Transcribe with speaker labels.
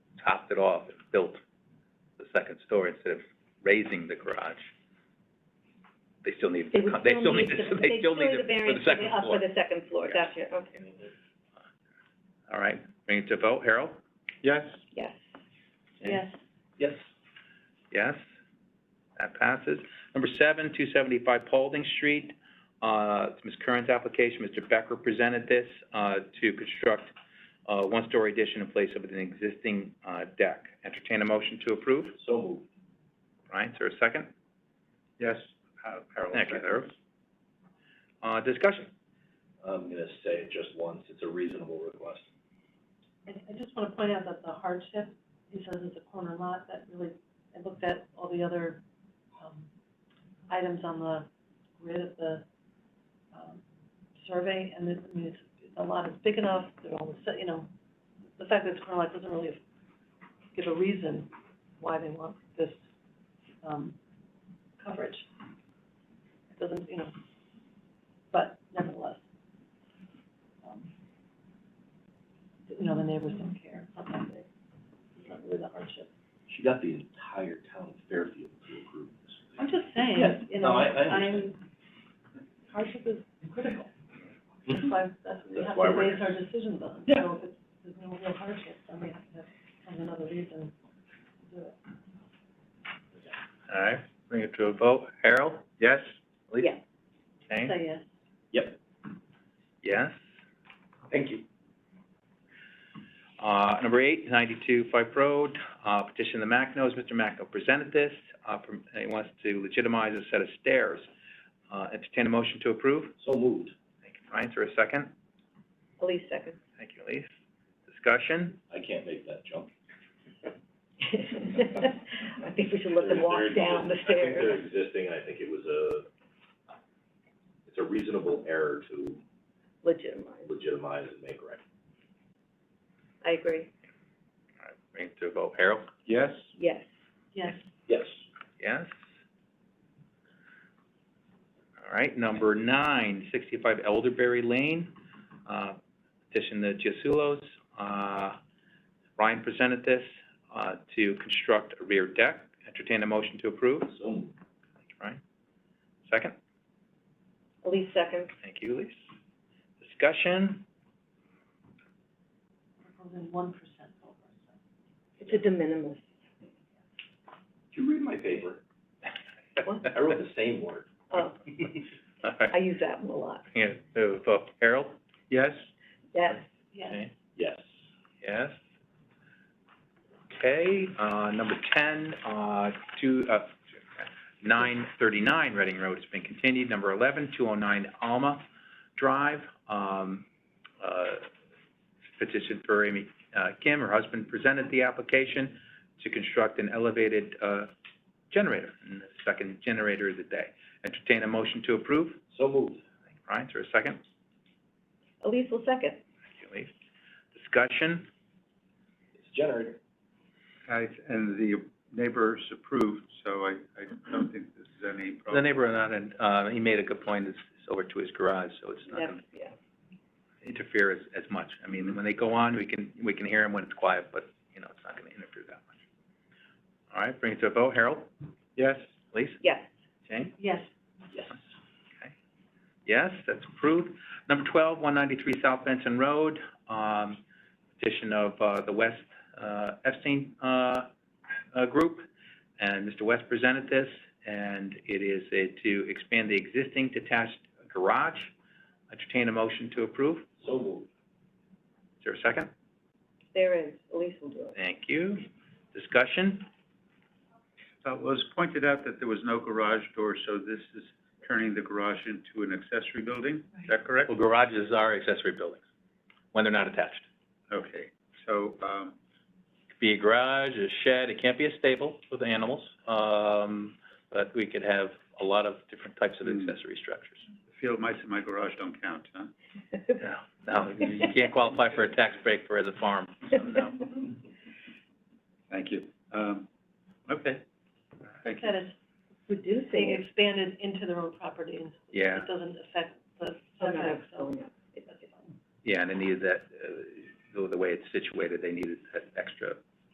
Speaker 1: topped it off and built the second story instead of raising the garage, they still need,
Speaker 2: They would
Speaker 1: they still need,
Speaker 2: the-
Speaker 1: to- they still need it for the second
Speaker 2: They still need the variance for the, up for
Speaker 1: floor.
Speaker 2: the second floor,
Speaker 1: Yeah.
Speaker 2: gotcha, okay,
Speaker 1: All right, bring it to vote. Harold?
Speaker 3: Yes?
Speaker 2: yes,
Speaker 1: Okay.
Speaker 2: yes.
Speaker 3: Yes.
Speaker 1: Yes, that passes. Number seven, two seventy-five Paulding Street, uh, it's Ms. Curran's application, Mr. Becker presented this, uh, to construct, uh, one-story addition in place of an existing, uh, deck. Entertain a motion to approve.
Speaker 3: So moved.
Speaker 1: Ryan, is there a second?
Speaker 3: Yes. Har- Harold.
Speaker 1: Thank you,
Speaker 3: second.
Speaker 1: Harold. Uh, discussion?
Speaker 3: I'm gonna say it just once, it's a reasonable request.
Speaker 4: And I just want to point out that the hardship, he says it's a corner lot, that really, I looked at all the other, um, items on the grid of the, um, survey, and it, I mean, it's, the lot is big enough, they're all, set, you know, the fact that it's corner lot doesn't really give a reason why they want this, um, coverage. It doesn't, you know, but nevertheless, um, you know, the neighbors don't care, it's not that big, it's not really the hardship.
Speaker 3: She got the entire town of Fairfield to approve this.
Speaker 4: I'm
Speaker 3: thing.
Speaker 4: just
Speaker 3: Yes,
Speaker 4: saying, you
Speaker 3: no,
Speaker 4: know,
Speaker 3: I- I understand.
Speaker 4: I'm, hardship is critical, that's why, that's what we
Speaker 3: That's
Speaker 4: have
Speaker 3: why
Speaker 4: to
Speaker 3: we're
Speaker 4: base our decisions on.
Speaker 3: Yeah.
Speaker 4: So if it's, there's no real hardship, then we have to have some another reason to do it.
Speaker 1: All right, bring it to a vote. Harold?
Speaker 3: Yes?
Speaker 2: Yeah.
Speaker 1: Jane?
Speaker 4: So, yes.
Speaker 3: Yep.
Speaker 1: Yes.
Speaker 3: Thank you.
Speaker 1: Uh, number eight, ninety-two Fife Road, uh, petition the Macnos, Mr. Macno presented this, uh, from, and he wants to legitimize a set of stairs. Uh, entertain a motion to approve.
Speaker 3: So moved.
Speaker 1: Thank you, Ryan, is there a second?
Speaker 2: Elise second.
Speaker 1: Thank you, Elise. Discussion?
Speaker 3: I can't make that jump.
Speaker 2: I think we should let them walk down the stairs.
Speaker 3: existing, and I think it was a, it's a reasonable error to
Speaker 2: Legitimize,
Speaker 3: legitimize and make right.
Speaker 2: I agree,
Speaker 1: All right, bring it to a vote. Harold?
Speaker 3: Yes?
Speaker 2: yes,
Speaker 4: Yes,
Speaker 3: Yes.
Speaker 1: Yes. All right, number nine, sixty-five Elderberry Lane, uh, petition the Giasulos. Uh, Ryan presented this, uh, to construct a rear deck. Entertain a motion to approve.
Speaker 3: So moved.
Speaker 1: Thank you, Ryan. Second?
Speaker 2: Elise second,
Speaker 1: Thank you, Elise. Discussion?
Speaker 4: we're going one percent over, so.
Speaker 2: it's a de minimis.
Speaker 3: Did you read my paper? I wrote the same word.
Speaker 2: Oh,
Speaker 1: All right,
Speaker 2: I use that one a lot,
Speaker 1: bring it to a vote. Harold?
Speaker 3: Yes?
Speaker 2: yes,
Speaker 4: Yes.
Speaker 1: Okay.
Speaker 3: Yes.
Speaker 1: Yes. Okay, uh, number ten, uh, two, uh, nine thirty-nine Reading Road has been continued. Number eleven, two oh nine Alma Drive, um, uh, petition for Amy, uh, Kim, her husband presented the application to construct an elevated, uh, generator, and the second generator of the day. Entertain a motion to approve.
Speaker 3: So moved.
Speaker 1: Ryan, is there a second?
Speaker 2: Elise will second,
Speaker 1: Thank you, Elise. Discussion?
Speaker 3: It's generated.
Speaker 5: I, and the neighbors approved, so I, I don't think this is any
Speaker 1: The
Speaker 5: problem.
Speaker 1: neighbor on it, uh, he made a good point, it's, it's over to his garage, so it's not
Speaker 2: that's,
Speaker 1: gonna
Speaker 2: yeah,
Speaker 1: interfere as, as much. I mean, when they go on, we can, we can hear him when it's quiet, but, you know, it's not gonna interfere that much. All right, bring it to a vote. Harold?
Speaker 5: Yes?
Speaker 1: Elise?
Speaker 2: yes,
Speaker 1: Jane?
Speaker 4: Yes,
Speaker 3: Yes.
Speaker 1: Yes, that's approved. Number twelve, one ninety-three South Benson Road, um, petition of, uh, the West, uh, Epstein, uh, uh, Group. And Mr. West presented this, and it is uh, to expand the existing detached garage. Entertain a motion to approve. Is
Speaker 3: So moved.
Speaker 1: there a second?
Speaker 2: there is, Elise will do it,
Speaker 1: Thank you. Discussion?
Speaker 5: Uh, it was pointed out that there was no garage door, so this is turning the garage into an accessory building, is that correct?
Speaker 1: Well, garages are accessory buildings, when they're not attached.
Speaker 5: Okay, so, um,
Speaker 1: It could be a garage, a shed, it can't be a stable with animals, um, but we could have a lot of different types of
Speaker 5: Hmm.
Speaker 1: accessory structures.
Speaker 5: field mice in my garage don't count, huh?
Speaker 1: No, no, you can't qualify for a tax break for as a farm, so no.
Speaker 5: Thank you. Um, okay, thank you.
Speaker 4: that is being
Speaker 2: reducing,
Speaker 4: expanded into their own property, and
Speaker 1: Yeah,
Speaker 4: it doesn't affect the
Speaker 2: oh, no,
Speaker 4: setback,
Speaker 2: oh,
Speaker 4: so
Speaker 2: no, it doesn't.
Speaker 1: yeah, and they needed that, uh, the- the way it's situated, they needed a